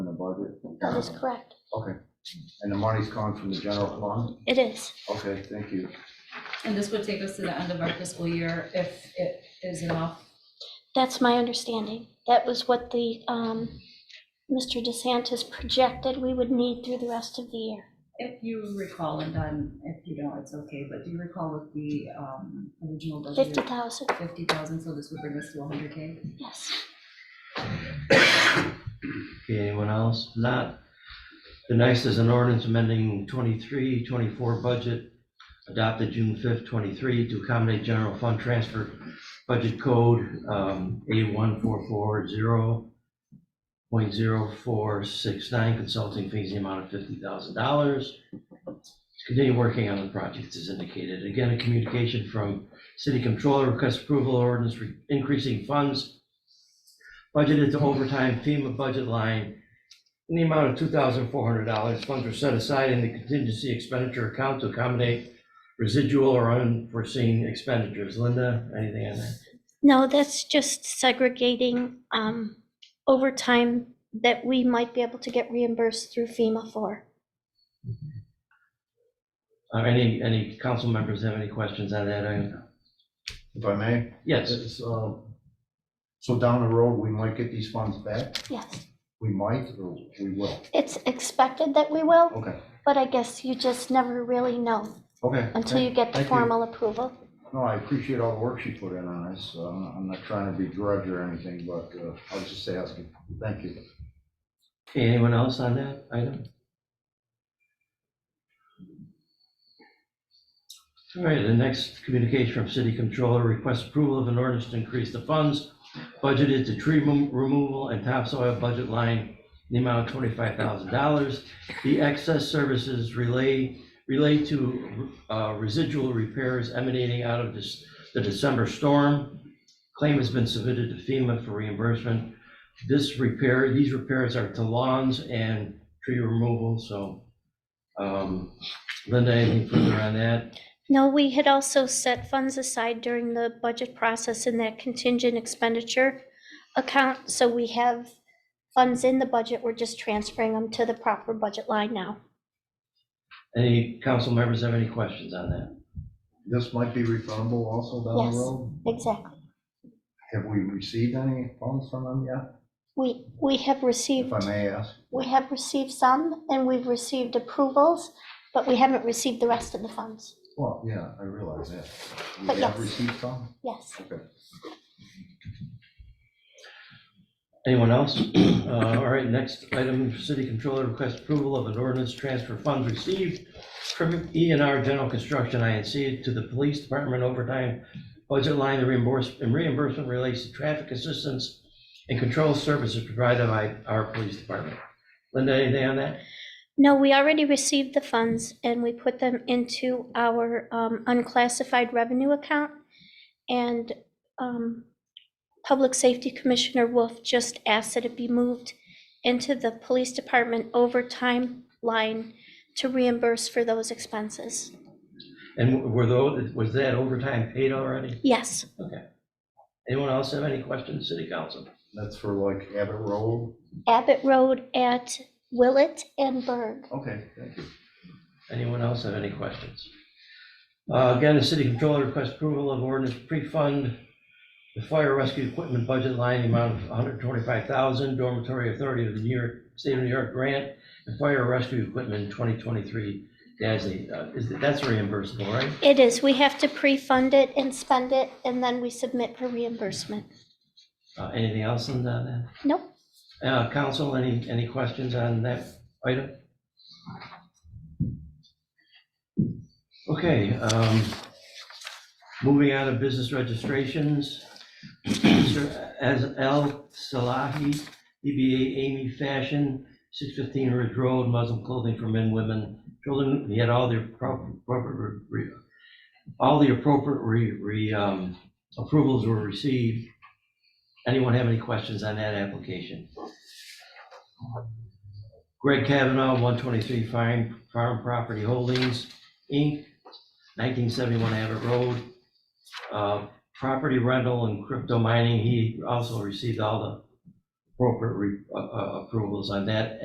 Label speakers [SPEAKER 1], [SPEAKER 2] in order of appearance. [SPEAKER 1] budget?
[SPEAKER 2] That
[SPEAKER 1] Uh-huh.
[SPEAKER 2] is correct.
[SPEAKER 1] Okay, and the money's coming from the general fund?
[SPEAKER 2] It is.
[SPEAKER 1] Okay, thank you.
[SPEAKER 3] And this would take us to the end of our fiscal year if it is enough.
[SPEAKER 2] That's my understanding. That was what the, um, Mr. DeSantis projected we would need through the rest of the year.
[SPEAKER 3] If you recall, and then if you don't, it's okay, but do you recall what the um, original budget?
[SPEAKER 2] Fifty thousand,
[SPEAKER 3] Fifty thousand, so this would bring us to hundred K.
[SPEAKER 2] yes.
[SPEAKER 4] Okay, anyone else? Not. The next is an ordinance amending 23-24 budget adopted June fifth, twenty-three to accommodate general fund transfer budget code, um, A one four four zero point zero four six nine, consulting fees, the amount of fifty thousand dollars. Continue working on the projects as indicated. Again, a communication from city controller requests approval ordinance re- increasing funds budgeted to overtime FEMA budget line in the amount of two thousand four hundred dollars. Funds were set aside in the contingency expenditure account to accommodate residual or unforeseen expenditures. Linda, anything on that?
[SPEAKER 2] No, that's just segregating, um, overtime that we might be able to get reimbursed through FEMA for.
[SPEAKER 4] Uh, any, any council members have any questions on that? item?
[SPEAKER 1] If I may?
[SPEAKER 4] Yes,
[SPEAKER 1] It's, um, So down the road, we might get these funds back?
[SPEAKER 2] Yes,
[SPEAKER 1] We might or we will?
[SPEAKER 2] it's expected that we will,
[SPEAKER 1] Okay,
[SPEAKER 2] but I guess you just never really know
[SPEAKER 1] okay.
[SPEAKER 2] until you get the
[SPEAKER 1] Thank you.
[SPEAKER 2] formal approval.
[SPEAKER 1] No, I appreciate all the work she put in on this. Uh, I'm not- I'm not trying to begrudge her or anything, but uh, I was just asking. Thank you.
[SPEAKER 4] Okay, anyone else on that item? All right, the next communication from city controller requests approval of an ordinance to increase the funds budgeted to tree remo- removal and topsoil budget line in the amount of twenty-five thousand dollars. The excess services relay, relate to uh, residual repairs emanating out of this, the December storm. Claim has been submitted to FEMA for reimbursement this repair, these repairs are to lawns and tree removal, so. um, Linda, anything further on that?
[SPEAKER 2] No, we had also set funds aside during the budget process in that contingent expenditure account, so we have funds in the budget, we're just transferring them to the proper budget line now.
[SPEAKER 4] Any council members have any questions on that?
[SPEAKER 1] This might be refundable also down the
[SPEAKER 2] Yes.
[SPEAKER 1] road?
[SPEAKER 2] Exactly.
[SPEAKER 1] Have we received any funds from them yet?
[SPEAKER 2] We, we have received,
[SPEAKER 1] If I may ask?
[SPEAKER 2] we have received some, and we've received approvals, but we haven't received the rest of the funds.
[SPEAKER 1] Well, yeah, I realize that.
[SPEAKER 2] But
[SPEAKER 1] We have
[SPEAKER 2] yes.
[SPEAKER 1] received some?
[SPEAKER 2] Yes.
[SPEAKER 1] Okay.
[SPEAKER 4] Anyone else? Uh, All right, next item, city controller requests approval of an ordinance transfer funds received from E and R General Construction INC to the police department overtime budget line. The reimbursement, reimbursement relates to traffic assistance and control services provided by our police department. Linda, anything on that?
[SPEAKER 2] No, we already received the funds and we put them into our um, unclassified revenue account. And um, Public Safety Commissioner Wolf just asked that it be moved into the Police Department overtime line to reimburse for those expenses.
[SPEAKER 4] And were those, was that overtime paid already?
[SPEAKER 2] Yes,
[SPEAKER 4] Anyone else have any questions, city council?
[SPEAKER 1] That's for like Abbott Road?
[SPEAKER 2] Abbott Road at Willett and Berg.
[SPEAKER 1] Okay, thank you.
[SPEAKER 4] Anyone else have any questions? Uh, Again, the city controller requests approval of ordinance pre-fund the fire rescue equipment budget line, the amount of $125,000 dormitory authority of the New York, state of New York grant and fire rescue equipment 2023 dash eight. Uh, Is that- That's reimbursable, right?
[SPEAKER 2] It is, we have to pre-fund it and spend it and then we submit for reimbursement.
[SPEAKER 4] Uh, Anything else on that?
[SPEAKER 2] Nope.
[SPEAKER 4] Uh, Council, any, any questions on that item? Okay, um, moving on to business registrations. Mr. Az- Al Salahi, DBA Amy Fashion, 615 Ridge Road, Muslim clothing for men, women, children. He had all the appro- appropriate, re- re- all the appropriate re- re, um, approvals were received. Anyone have any questions on that application? Greg Kavanaugh, 123 Farm, Farm Property Holdings, Inc., 1971 Abbott Road. Uh, Property rental and crypto mining, he also received all the appropriate re- uh, uh, approvals on that